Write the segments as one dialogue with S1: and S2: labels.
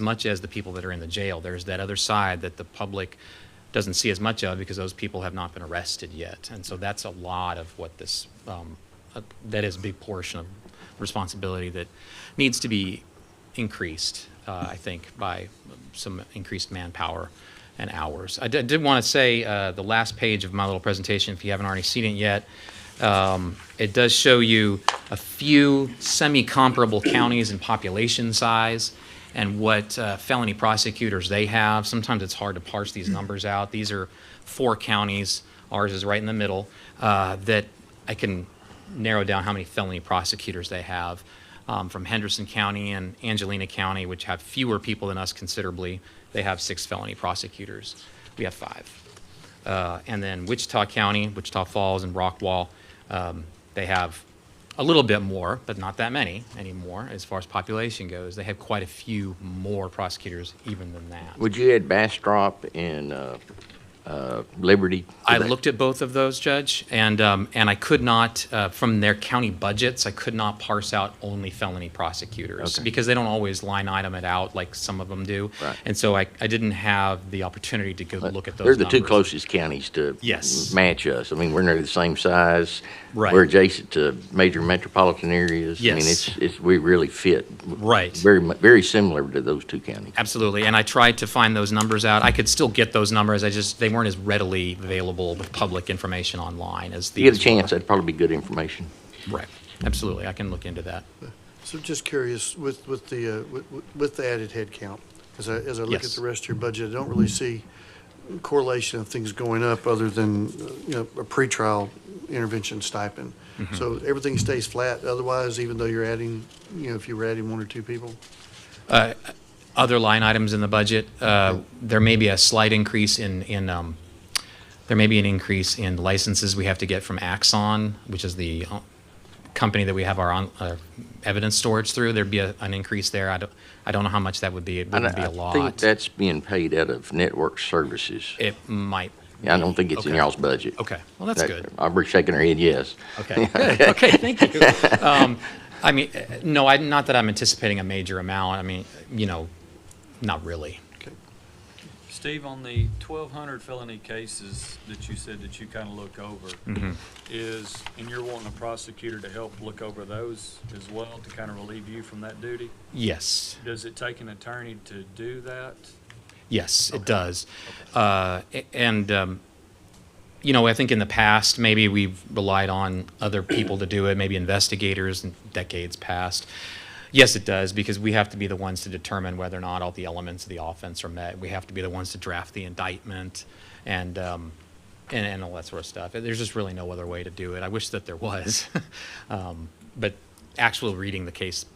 S1: much as the people that are in the jail. There's that other side that the public doesn't see as much of because those people have not been arrested yet. And so that's a lot of what this, um, uh, that is a big portion of responsibility that needs to be increased, uh, I think, by some increased manpower and hours. I did, did want to say uh, the last page of my little presentation, if you haven't already seen it yet, um, it does show you a few semi-comparable counties in population size and what uh, felony prosecutors they have. Sometimes it's hard to parse these numbers out. These are four counties, ours is right in the middle, uh, that I can narrow down how many felony prosecutors they have um, from Henderson County and Angelina County, which have fewer people than us considerably. They have six felony prosecutors. We have five. Uh, and then Wichita County, Wichita Falls, and Rockwall, um, they have a little bit more, but not that many anymore as far as population goes. They have quite a few more prosecutors even than that.
S2: Would you add Bastrop and uh, uh, Liberty? to
S1: I
S2: that?
S1: looked at both of those, Judge, and, um, and I could not, uh, from their county budgets, I could not parse out only felony prosecutors.
S2: Okay.
S1: Because they don't always line item it out like some of them do.
S2: Right.
S1: And so I, I didn't have the opportunity to go look at those
S2: They're the two
S1: numbers.
S2: closest counties to
S1: Yes.
S2: match us. I mean, we're nearly the same size.
S1: Right.
S2: We're adjacent to major metropolitan areas. I mean,
S1: Yes.
S2: it's, it's, we really fit.
S1: Right.
S2: Very, mu- very similar to those two counties.
S1: Absolutely, and I tried to find those numbers out. I could still get those numbers, I just, they weren't as readily available with public information online as
S2: If
S1: these.
S2: you get a chance, that'd probably be good information.
S1: were. Right, absolutely, I can look into that.
S3: So just curious, with, with the, uh, with- with- with the added headcount, as I, as I look at
S1: Yes.
S3: the rest of your budget, I don't really see correlation of things going up other than, uh, you know, a pretrial intervention stipend. So everything stays flat otherwise, even though you're adding, you know, if you were adding one or two people?
S1: Other line items in the budget, uh, there may be a slight increase in, in, um, there may be an increase in licenses we have to get from Axon, which is the uh, company that we have our on- our evidence storage through. There'd be a- an increase there. I don't, I don't know how much that would be. It
S2: And
S1: wouldn't be a
S2: I think
S1: lot.
S2: that's being paid out of network services.
S1: It might,
S2: I don't think it's in
S1: Okay.
S2: y'all's budget.
S1: okay, well, that's
S2: That-
S1: good.
S2: Aubrey's shaking her head yes.
S1: Okay, good. Okay, thank you. Um, I mean, uh, no, I, not that I'm anticipating a major amount. I mean, you know, not really.
S3: Okay.
S4: Steve, on the twelve hundred felony cases that you said that you kind of look over, is, and you're wanting a prosecutor to help look over those as well, to kind of relieve you from that duty?
S1: Yes,
S4: Does it take an attorney to do that?
S1: yes, it does. Uh, a- and, um, you know, I think in the past, maybe we've relied on other people to do it, maybe investigators in decades past. Yes, it does, because we have to be the ones to determine whether or not all the elements of the offense are met. We have to be the ones to draft the indictment and, um, and, and all that sort of stuff. There's just really no other way to do it. I wish that there was. um, but actually reading the case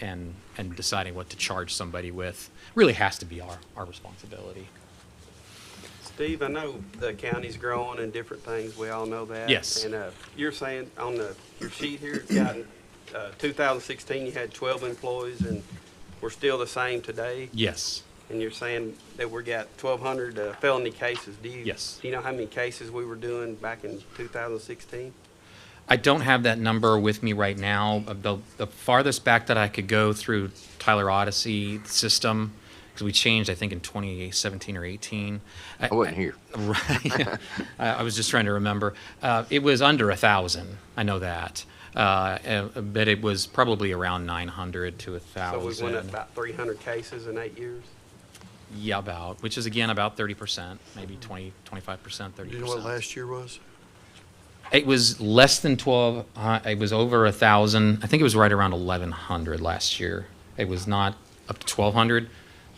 S1: and, and deciding what to charge somebody with really has to be our, our responsibility.
S5: Steve, I know the county's growing and different things, we all know that.
S1: Yes.
S5: And uh, you're saying on the, your sheet here, it's got, uh, 2016, you had 12 employees, and we're still the same today?
S1: Yes.
S5: And you're saying that we got 1,200 uh, felony cases? Do you?
S1: Yes.
S5: Do you know how many cases we were doing back in 2016?
S1: I don't have that number with me right now. Uh, The, the farthest back that I could go through Tyler Odyssey system, because we changed, I think, in 2017 or 18. I-
S2: I wasn't here.
S1: Right. I, I was just trying to remember. Uh, it was under a thousand. I know that. Uh, uh, but it was probably around 900 to a
S5: So
S1: thousand.
S5: we went up about 300 cases in eight years?
S1: yeah, about, which is again about 30%, maybe 20, 25%, 30%.
S3: Do you know what last year was?
S1: It was less than 12, uh, it was over a 1,000. I think it was right around 1,100 last year. It was not up to 1,200,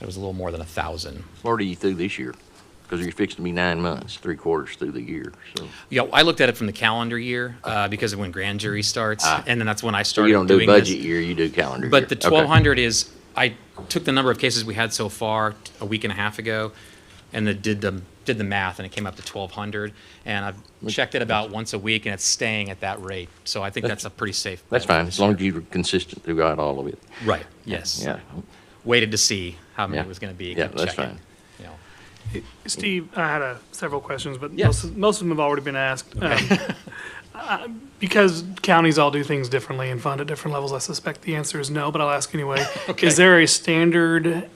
S1: it was a little more than a 1,000.
S2: What are you through this year? Because you're fixing to be nine months, three quarters through the year, so.
S1: Yeah, I looked at it from the calendar year uh, because of when grand jury starts,
S2: Ah.
S1: and then that's when I
S2: So
S1: started
S2: you don't do
S1: doing this.
S2: budget year, you do calendar year.
S1: But the
S2: Okay.
S1: 1,200 is, I took the number of cases we had so far t- a week and a half ago, and then did the, did the math, and it came up to 1,200. And I've checked it about once a week, and it's staying at that rate. So I think that's a pretty safe.
S2: That's
S1: bet.
S2: fine, as long as you're consistent throughout all of it.
S1: Right, yes.
S2: Yeah,
S1: waited to see how many
S2: Yeah.
S1: it was going to be.
S2: Yeah,
S1: kept
S2: that's
S1: checking,
S2: fine.
S1: you know.
S6: Steve, I had a, several questions, but
S1: Yes.
S6: most, of- most of them have already been asked. Um, I- because counties all do things differently and fund at different levels, I suspect the answer is no, but I'll ask anyway. Is there a standard